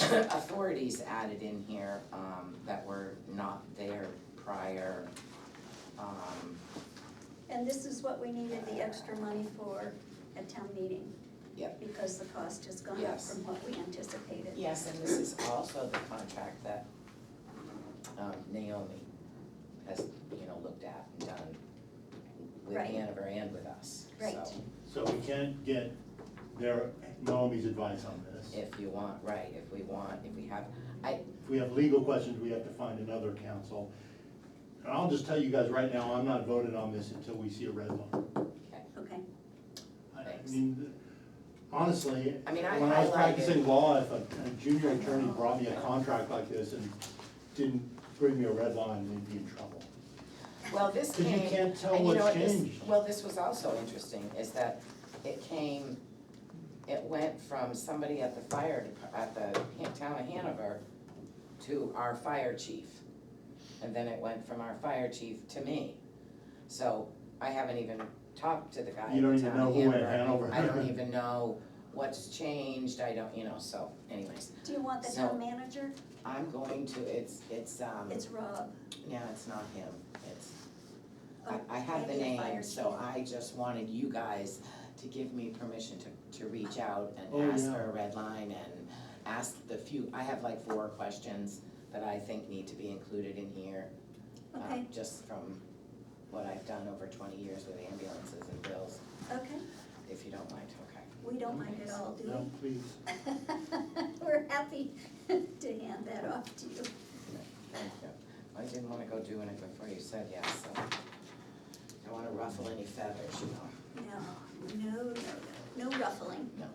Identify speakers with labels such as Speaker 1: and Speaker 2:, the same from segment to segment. Speaker 1: other authorities added in here, um, that were not there prior. Um,
Speaker 2: And this is what we needed the extra money for at town meeting.
Speaker 1: Yep.
Speaker 2: Because the cost has gone up
Speaker 1: Yes.
Speaker 2: from what we anticipated.
Speaker 1: Yes, and this is also the contract that, um, Naomi has, you know, looked at and done with
Speaker 2: Right.
Speaker 1: Hanover and with us, so,
Speaker 2: Right.
Speaker 3: So we can't get their, Naomi's advice on this.
Speaker 1: if you want, right, if we want, if we have,
Speaker 3: If we have legal questions, we have to find another counsel. And I'll just tell you guys right now, I'm not voting on this until we see a red line.
Speaker 2: Okay,
Speaker 3: I- I
Speaker 1: Thanks.
Speaker 3: mean, honestly,
Speaker 1: I mean, I
Speaker 3: when I was
Speaker 1: highlighted-
Speaker 3: practicing law, if a a junior attorney brought me a contract like this and didn't bring me a red line, we'd be in trouble.
Speaker 1: well, this
Speaker 3: Because you
Speaker 1: came.
Speaker 3: can't tell
Speaker 1: And you know
Speaker 3: what's
Speaker 1: what, this-
Speaker 3: changed.
Speaker 1: Well, this was also interesting, is that it came, it went from somebody at the fire, dep- at the Han- town of Hanover to our fire chief. And then it went from our fire chief to me. So I haven't even talked to the guy
Speaker 3: You
Speaker 1: at
Speaker 3: don't
Speaker 1: the
Speaker 3: even
Speaker 1: town of
Speaker 3: know who at
Speaker 1: Hanover.
Speaker 3: Hanover.
Speaker 1: I don't even know what's changed, I don't, you know, so anyways,
Speaker 2: do you want the
Speaker 1: So-
Speaker 2: town manager?
Speaker 1: I'm going to, it's, it's, um,
Speaker 2: It's Rob.
Speaker 1: no, it's not him, it's,
Speaker 2: Oh,
Speaker 1: I, I have the
Speaker 2: maybe
Speaker 1: name,
Speaker 2: fire
Speaker 1: so
Speaker 2: chief.
Speaker 1: I just wanted you guys to give me permission to, to reach out
Speaker 3: Oh,
Speaker 1: and ask
Speaker 3: yeah.
Speaker 1: for a red line and ask the few, I have like four questions that I think need to be included in here. um,
Speaker 2: Okay.
Speaker 1: Just from what I've done over twenty years with ambulances and bills,
Speaker 2: Okay,
Speaker 1: if you don't mind, okay.
Speaker 2: we don't mind at all, do
Speaker 3: No,
Speaker 2: we?
Speaker 3: please.
Speaker 2: We're happy to hand that off to you.
Speaker 1: Thank you. I didn't wanna go doing it before you said yes, so. Don't wanna ruffle any feathers, you know.
Speaker 2: No, no, no, no, no ruffling.
Speaker 1: No.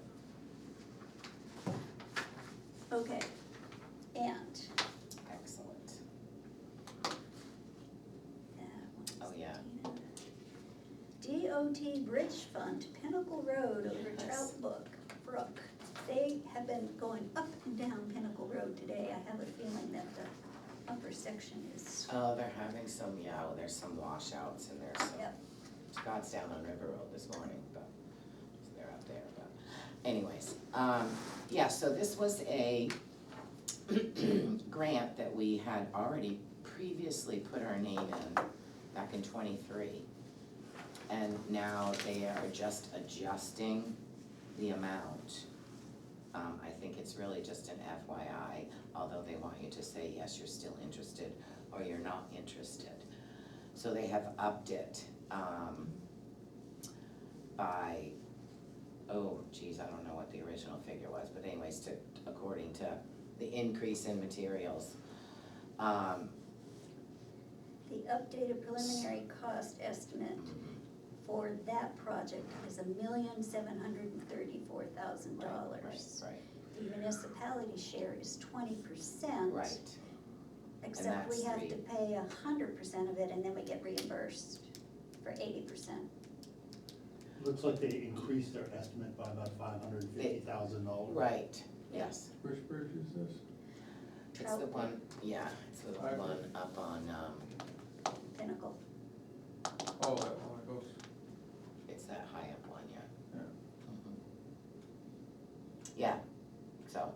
Speaker 2: Okay, and,
Speaker 1: Excellent.
Speaker 2: that one's
Speaker 1: Oh, yeah.
Speaker 2: DOT Bridge Fund, Pinnacle Road over
Speaker 1: Yes.
Speaker 2: Trout Brook, Brook. They have been going up and down Pinnacle Road today. I have a feeling that the upper section is,
Speaker 1: Oh, they're having some, yeah, well, there's some washouts and there's some,
Speaker 2: Yep.
Speaker 1: Scott's down on River Road this morning, but they're up there, but anyways. Um, yeah, so this was a grant that we had already previously put our name in back in twenty-three. And now they are just adjusting the amount. Um, I think it's really just an FYI, although they want you to say, yes, you're still interested, or you're not interested. So they have upped it, um, by, oh geez, I don't know what the original figure was, but anyways, to, according to the increase in materials. Um,
Speaker 2: the updated preliminary cost estimate for that project is a million seven hundred and thirty-four thousand
Speaker 1: right,
Speaker 2: dollars.
Speaker 1: Right,
Speaker 2: The municipality share is twenty percent.
Speaker 1: right, right,
Speaker 2: Except we
Speaker 1: that's
Speaker 2: have
Speaker 1: three.
Speaker 2: to pay a hundred percent of it and then we get reimbursed for eighty percent.
Speaker 3: Looks like they increased their estimate by about five hundred and fifty thousand dollars.
Speaker 1: right, yes.
Speaker 4: Which bridge is this?
Speaker 1: It's the
Speaker 2: Trout.
Speaker 1: one, yeah, it's the
Speaker 4: Right.
Speaker 1: one up on, um,
Speaker 2: Pinnacle.
Speaker 4: Oh, that one that goes,
Speaker 1: it's that high up one, yeah.
Speaker 4: Yeah.
Speaker 1: Mhm. Yeah, so.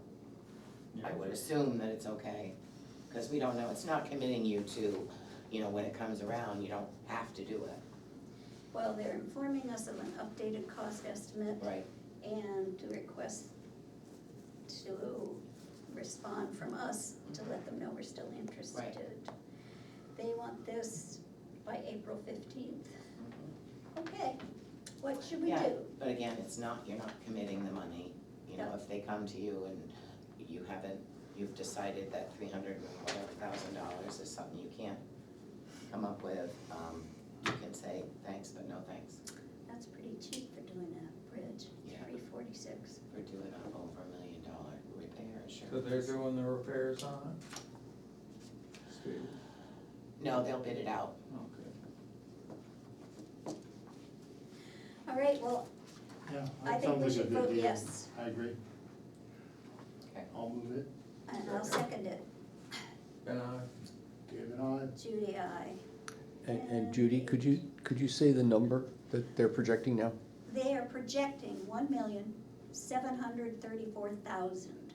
Speaker 1: I
Speaker 4: yeah,
Speaker 1: would assume that it's okay, because we don't know, it's not committing you to, you know, when it comes around, you don't have to do it,
Speaker 2: Well, they're informing us of an updated cost estimate
Speaker 1: right?
Speaker 2: and to request to respond from us to let them know we're still interested. They want this by April fifteenth. Okay, what should we
Speaker 1: Yeah.
Speaker 2: do?
Speaker 1: But again, it's not, you're not committing the money, you know, if they come to you and you haven't, you've decided that three hundred and whatever thousand dollars is something you can't come up with, um, you can say, thanks, but no thanks,
Speaker 2: That's pretty cheap for doing a bridge,
Speaker 1: Yeah.
Speaker 2: three forty-six.
Speaker 1: for doing an over a million dollar repair, sure.
Speaker 4: so they're doing the repairs on it? Steve,
Speaker 1: No, they'll bid it out,
Speaker 4: okay.
Speaker 2: All right, well,
Speaker 3: Yeah,
Speaker 2: I
Speaker 3: that
Speaker 2: think we
Speaker 3: sounds like a
Speaker 2: should
Speaker 3: good
Speaker 2: vote
Speaker 3: deal.
Speaker 2: yes,
Speaker 3: I agree.
Speaker 1: Okay.
Speaker 3: I'll move it.
Speaker 2: and I'll second it.
Speaker 4: And I,
Speaker 3: David, I,
Speaker 2: Judy, I.
Speaker 5: And, and Judy, could you, could you say the number that they're projecting now?
Speaker 2: They are projecting one million, seven hundred thirty-four thousand.